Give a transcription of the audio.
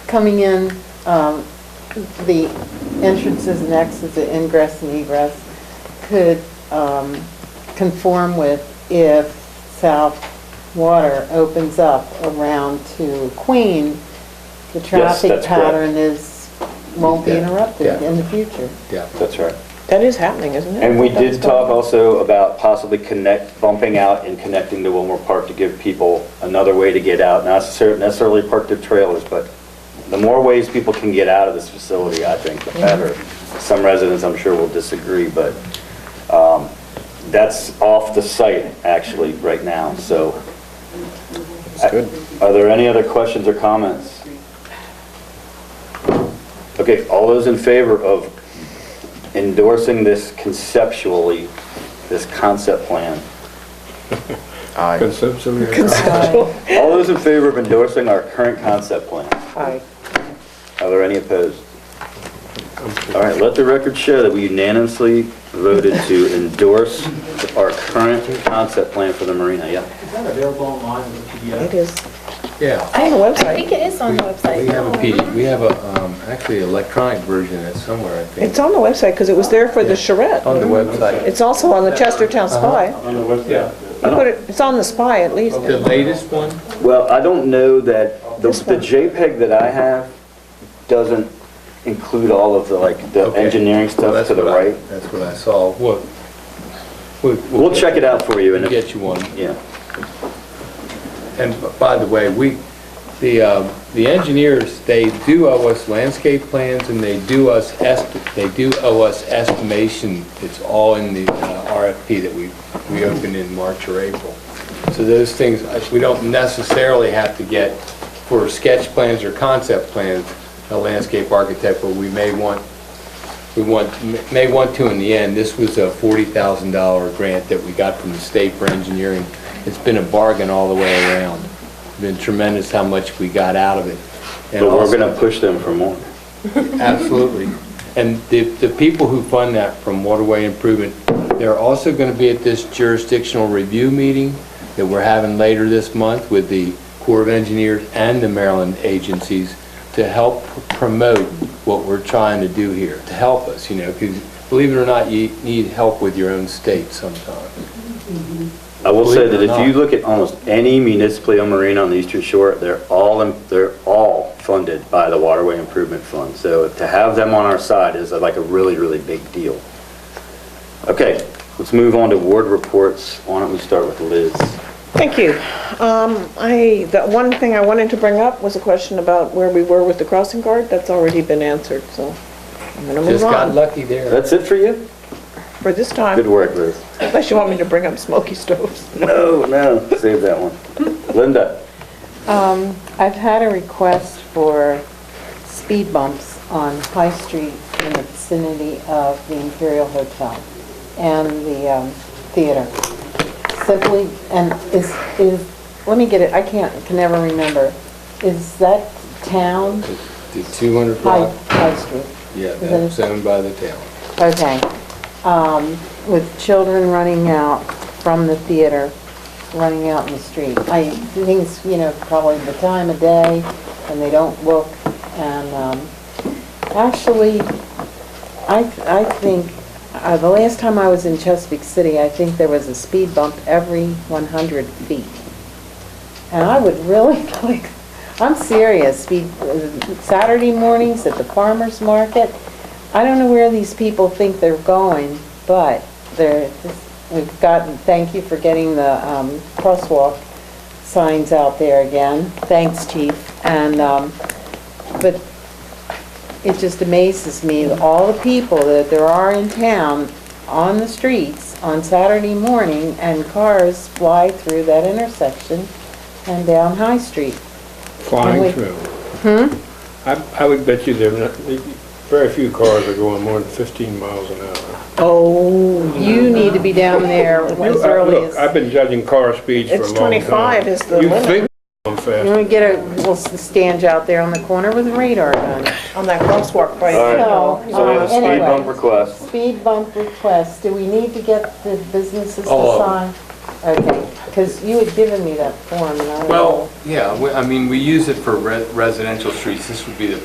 coming in, um, the entrances and exits, the ingress and egress could um, conform with if South Water opens up around to Queen, the traffic that's correct. pattern is, won't be Yeah, interrupted yeah. in the future. Yeah. That's right. That is happening, isn't it? And we That's did talk going- also about possibly connect, bumping out and connecting to Wilmore Park to give people another way to get out, not necessar- necessarily parked their trailers, but the more ways people can get out of this facility, I think, the better. Some residents, I'm sure, will disagree, but um, that's off the site, actually, right now, so. good. Are there any other questions or comments? Okay, all those in favor of endorsing this conceptually, this concept plan? Aye. Conceptually, Aye. All those in favor of endorsing our current concept plan? Aye. Are there any opposed? All right, let the record show that we unanimously voted to endorse our current concept plan for the marina, yeah. Is that available online as a PDF? It is. Yeah. On the I think website. it is on the website. We have a P, we have a, um, actually electronic version of it somewhere, I think. It's on the website because it was there for the charrette. On the website. It's also on the Chestertown Spy. on the website. You put it, it's on the Spy at least. The latest one? Well, I don't know that, the This the one. JPEG that I have doesn't include all of the, like, the Okay. engineering Well, stuff that's to the what I- right. That's what I saw. We'll, we- We'll check it out for you, and We'll if, get you one. yeah. And b- by the way, we, the, um, the engineers, they do owe us landscape plans and they do us, est- they do owe us estimation. It's all in the uh, RFP that we, we opened in March or April. So those things, uh, we don't necessarily have to get for sketch plans or concept plans, a landscape architect, but we may want, we want, may want to in the end. This was a $40,000 grant that we got from the state for engineering. It's been a bargain all the way around. Been tremendous how much we got out of it. And But we're also- gonna push them for more. Absolutely. And the, the people who fund that from Waterway Improvement, they're also going to be at this jurisdictional review meeting that we're having later this month with the Corps of Engineers and the Maryland agencies to help promote what we're trying to do here, to help us, you know, because believe it or not, you need help with your own state sometimes. I will say Believe that it or if you not. look at almost any municipally owned marina on the eastern shore, they're all, in- they're all funded by the Waterway Improvement Fund. So to have them on our side is like a really, really big deal. Okay, let's move on to ward reports. Why don't we start with Liz? Thank you. Um, I, the one thing I wanted to bring up was a question about where we were with the crossing guard. That's already been answered, so I'm going to Just move got on lucky there. That's it for you? for this Good time. work, Liz. Unless you want me to bring up smoky stoves. No, Oh, no, save that one. Linda? Um, I've had a request for speed bumps on High Street in the vicinity of the Imperial Hotel and the um, theater. Simply, and is, is, let me get it, I can't, can never remember. Is that town, The 200 High, block, High Street? yeah, Is that's it- owned by the town. Okay. Um, With children running out from the theater, running out in the street. I think it's, you know, probably the time of day, and they don't look, and um, actually, I, I think, uh, the last time I was in Chesapeake City, I think there was a speed bump every 100 feet. And I would really like, I'm serious, speed, Saturday mornings at the farmer's market, I don't know where these people think they're going, but they're, we've gotten, thank you for getting the um, crosswalk signs out there again. Thanks, chief. And, um, but it just amazes me, that all the people that there are in town on the streets on Saturday morning and cars fly through that intersection and down High Street. Flying Wait. through. Hmm? I, I would bet you there, are not- very few cars are going more than 15 miles an hour. Oh. You need to be down there as You- I- early Look, as... I've been judging car speeds for a long It's time. 25 is the limit. You think I'm You fast. want to get a, we'll stand out there on the corner with a radar gun. On that crosswalk right All So, right. So we have a speed Oh, anyway. bump request. Speed bump request, do we need to get the businesses to All of sign? Okay, because you had given me that form and I. Well, yeah, we- I mean, we use it for re- residential streets. This would be the